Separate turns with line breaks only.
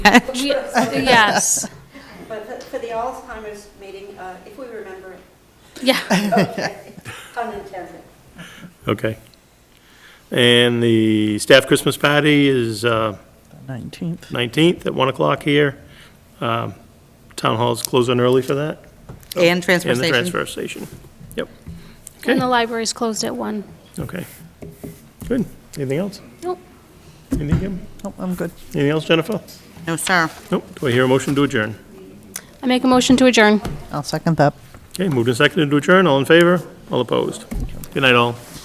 patch.
We- Yes,
But for- for the Alzheimer's meeting, uh, if we remember it,
yeah.
okay, unintended.
Okay. And the staff Christmas party is uh,
19th.
19th at 1 o'clock here. Um, Town hall's closing early for that.
And transfer
Oh, And the
station.
transfer station. Yep.
And the
Okay,
library's closed at one.
okay. Good. Anything else?
Nope.
Anything, Kim?
Nope, I'm good.
Anything else, Jennifer?
No, sir.
Nope. Do I hear a motion to adjourn?
I make a motion to adjourn.
I'll second that.
Okay, moved and seconded to adjourn. All in favor? All opposed? Good night, all.